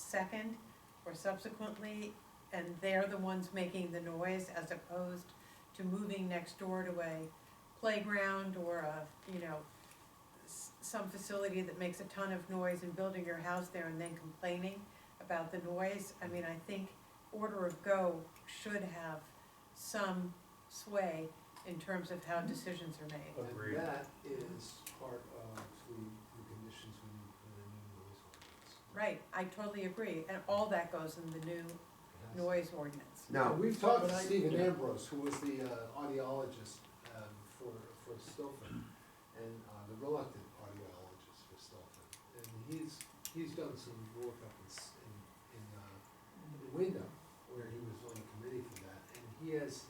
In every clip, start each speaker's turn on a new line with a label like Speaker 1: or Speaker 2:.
Speaker 1: second or subsequently, and they're the ones making the noise as opposed to moving next door to a playground or a, you know, s- some facility that makes a ton of noise and building your house there and then complaining about the noise. I mean, I think order of go should have some sway in terms of how decisions are made.
Speaker 2: Agreed.
Speaker 3: And that is part of the, the conditions we need for the new noise ordinance.
Speaker 1: Right, I totally agree, and all that goes in the new
Speaker 3: It has-
Speaker 1: noise ordinance.
Speaker 3: And
Speaker 4: Now,
Speaker 3: We've talked to
Speaker 4: But I-
Speaker 3: Stephen Ambrose, who was the uh, audiologist um, for, for Stillfin, and uh, the reluctant audiologist for Stillfin. And he's, he's done some work up in, S- in, in uh, in Wyndham, where he was on the committee for that, and he has,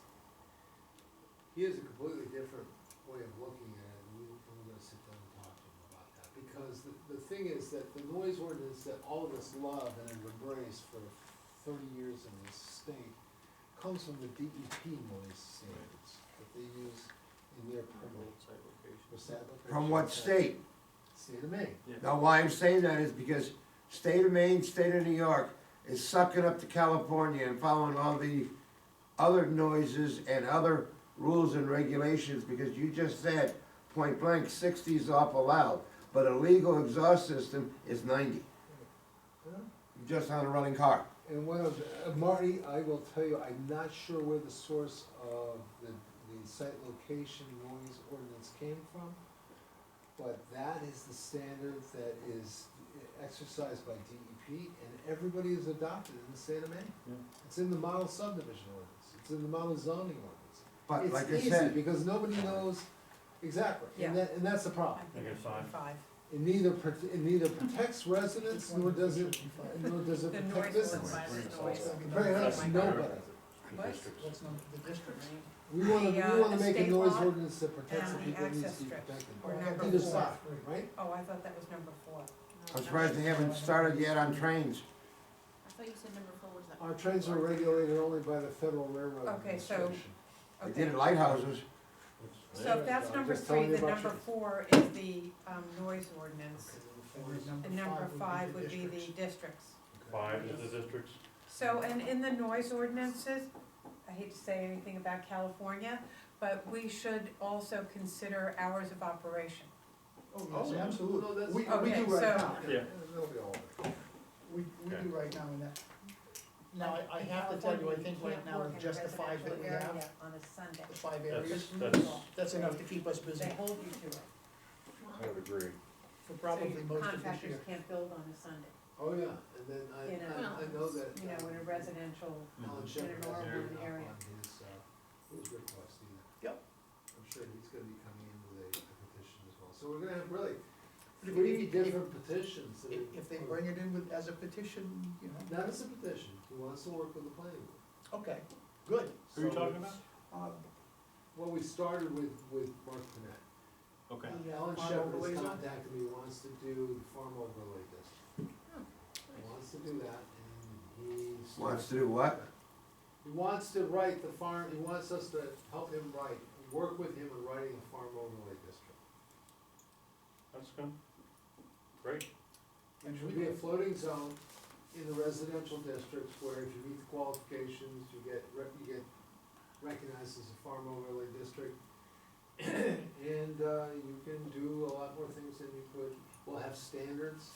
Speaker 3: he has a completely different way of looking at it, and we- and we're gonna sit down and talk to him about that. Because the, the thing is that the noise ordinance that all of us love and have embraced for thirty years in this state comes from the DEP noise standards that they use in their permit. What's that?
Speaker 4: from what state?
Speaker 3: State of Maine.
Speaker 4: Now, why I'm saying that is because state of Maine, state of New York is sucking up to California and following all the other noises and other rules and regulations, because you just said, point blank, sixty is awful loud, but a legal exhaust system is ninety,
Speaker 3: Uh-huh.
Speaker 4: just on a running car.
Speaker 3: And one of, uh, Marty, I will tell you, I'm not sure where the source of the, the site location noise ordinance came from, but that is the standard that is exercised by DEP, and everybody has adopted in the state of Maine.
Speaker 2: Yeah.
Speaker 3: It's in the model subdivision ordinance, it's in the model zoning ordinance.
Speaker 4: But
Speaker 3: It's
Speaker 4: like I
Speaker 3: easy
Speaker 4: said,
Speaker 3: Because nobody knows, exactly, and
Speaker 1: Yeah.
Speaker 3: that, and that's the
Speaker 1: I
Speaker 3: problem.
Speaker 1: think
Speaker 2: Okay,
Speaker 1: it should be
Speaker 2: fine.
Speaker 1: Five.
Speaker 3: It neither, prote- it neither protects residents, nor does it, nor does it
Speaker 1: The
Speaker 3: protect
Speaker 1: noise
Speaker 3: business.
Speaker 1: ordinance, noise.
Speaker 3: Very honest, nobody.
Speaker 1: What?
Speaker 5: That's not the district.
Speaker 3: We wanna,
Speaker 1: The, uh,
Speaker 3: we wanna
Speaker 1: the
Speaker 3: make a
Speaker 1: state
Speaker 3: noise
Speaker 1: law
Speaker 3: ordinance that protects the
Speaker 1: and the
Speaker 3: people who need
Speaker 1: access
Speaker 3: to be
Speaker 1: strips
Speaker 3: protected.
Speaker 1: are number
Speaker 3: Either
Speaker 1: four.
Speaker 3: side, right?
Speaker 1: Oh, I thought that was number four.
Speaker 4: I'm surprised they haven't started yet on trains.
Speaker 6: I thought you said number four was that.
Speaker 3: Our trains are regulated only by the Federal Railroad
Speaker 1: Okay, so-
Speaker 3: Administration.
Speaker 4: They
Speaker 1: Okay.
Speaker 4: did it lighthouses.
Speaker 1: So if that's
Speaker 3: I'm
Speaker 1: number
Speaker 3: just telling
Speaker 1: three,
Speaker 3: you
Speaker 1: then
Speaker 3: about
Speaker 1: number
Speaker 3: your-
Speaker 1: four is the, um, noise ordinance.
Speaker 5: And then
Speaker 1: And number five would be the districts.
Speaker 2: Five is the districts.
Speaker 1: So, and in the noise ordinances, I hate to say anything about California, but we should also consider hours of operation.
Speaker 5: Oh, yes, absolutely.
Speaker 3: No, that's- We, we
Speaker 1: Okay,
Speaker 3: do right
Speaker 1: so-
Speaker 3: now.
Speaker 2: Yeah.
Speaker 3: They'll be all right.
Speaker 5: We, we
Speaker 2: Okay.
Speaker 5: do right now in that. Now, I, I have to tell you, I think right now it justifies that we have
Speaker 1: On a Sunday.
Speaker 5: the five
Speaker 2: That's,
Speaker 5: areas.
Speaker 2: that's,
Speaker 5: That's enough to keep us busy
Speaker 1: They hold you to it.
Speaker 2: I would agree.
Speaker 5: for probably
Speaker 1: So
Speaker 5: most of this
Speaker 1: Contractors
Speaker 5: year.
Speaker 1: can't build on a Sunday,
Speaker 3: Oh, yeah, and then I,
Speaker 1: You know,
Speaker 3: I, I know that.
Speaker 1: you know, in a
Speaker 3: um,
Speaker 1: residential,
Speaker 3: Alan
Speaker 2: Mhm.
Speaker 3: Shepard has
Speaker 1: rural
Speaker 3: given up
Speaker 1: area.
Speaker 3: on his, uh, his request either.
Speaker 5: Yep.
Speaker 3: I'm sure he's gonna be coming in with a a petition as well, so we're gonna have really three different petitions. that
Speaker 5: If,
Speaker 3: are-
Speaker 5: if they bring it in with, as a petition, you know,
Speaker 3: Not as a petition, he wants to work with the planning board.
Speaker 5: okay, good.
Speaker 2: Who are you
Speaker 3: So
Speaker 2: talking
Speaker 3: it's-
Speaker 2: about?
Speaker 5: Um,
Speaker 3: Well, we started with, with Mark Burnett.
Speaker 2: Okay.
Speaker 5: Yeah,
Speaker 3: Alan
Speaker 5: farm
Speaker 3: Shepard
Speaker 5: overlays
Speaker 3: has
Speaker 5: on?
Speaker 3: contacted me, wants to do the farm overlay district. He wants to do that, and he.
Speaker 4: Wants
Speaker 3: started-
Speaker 4: to do what?
Speaker 3: He wants to write the farm, he wants us to help him write, work with him in writing a farm overlay district.
Speaker 2: That's good. Great.
Speaker 3: It should be a floating zone in the residential districts where if you meet the qualifications, you get, rec- you get recognized as a farm overlay district. And, uh, you can do a lot more things than you could, we'll have standards,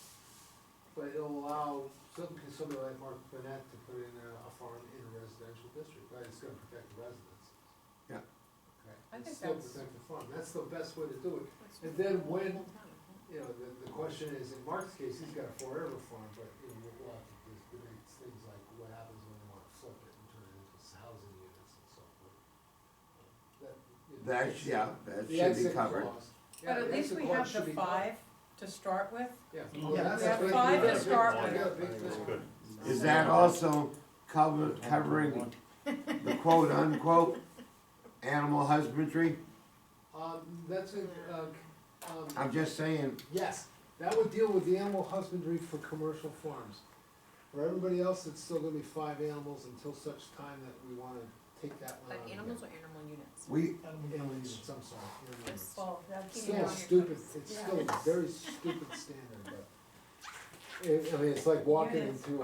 Speaker 3: but it'll allow some, somebody like Mark Burnett to put in a, a farm in a residential district, right, it's gonna protect the residents.
Speaker 4: Yeah.
Speaker 3: Okay,
Speaker 1: I
Speaker 3: and
Speaker 1: think
Speaker 3: still
Speaker 1: that's-
Speaker 3: protect the farm, that's the best way to do it, And then when- you know, the, the question is, in Mark's case, he's got a forever farm, but, you know, we'll have to just debate things like what happens when they wanna flip it and turn it into s- housing units and so forth. That, you know,
Speaker 4: That,
Speaker 3: it's-
Speaker 4: yeah, that
Speaker 3: the
Speaker 4: should be
Speaker 3: exit
Speaker 4: covered.
Speaker 3: clause. Yeah,
Speaker 1: but at
Speaker 3: the
Speaker 1: least
Speaker 3: exit
Speaker 1: we
Speaker 3: clause
Speaker 1: have
Speaker 3: should
Speaker 1: the
Speaker 3: be-
Speaker 1: five to start with.
Speaker 3: Yeah.
Speaker 5: We
Speaker 1: have five
Speaker 2: to start
Speaker 3: I got a
Speaker 2: with.
Speaker 3: big
Speaker 2: That's
Speaker 3: thing.
Speaker 2: good.
Speaker 4: Is that also cover, covering the quote unquote animal husbandry?
Speaker 3: Um, that's a, uh, um.
Speaker 4: I'm just saying,
Speaker 3: Yes, that would deal with the animal husbandry for commercial farms. For everybody else, it's still gonna be five animals until such time that we wanna take that one
Speaker 6: But
Speaker 3: out. again.
Speaker 6: animals or animal units?
Speaker 4: we,
Speaker 3: Animal units, I'm sorry, animal units.
Speaker 1: Well, that's.
Speaker 6: Keep it on
Speaker 3: Still
Speaker 6: your
Speaker 3: stupid,
Speaker 6: toes.
Speaker 3: it's
Speaker 1: Yeah.
Speaker 3: still a very stupid standard, but. It, I mean, it's like walking
Speaker 1: Units.
Speaker 3: into a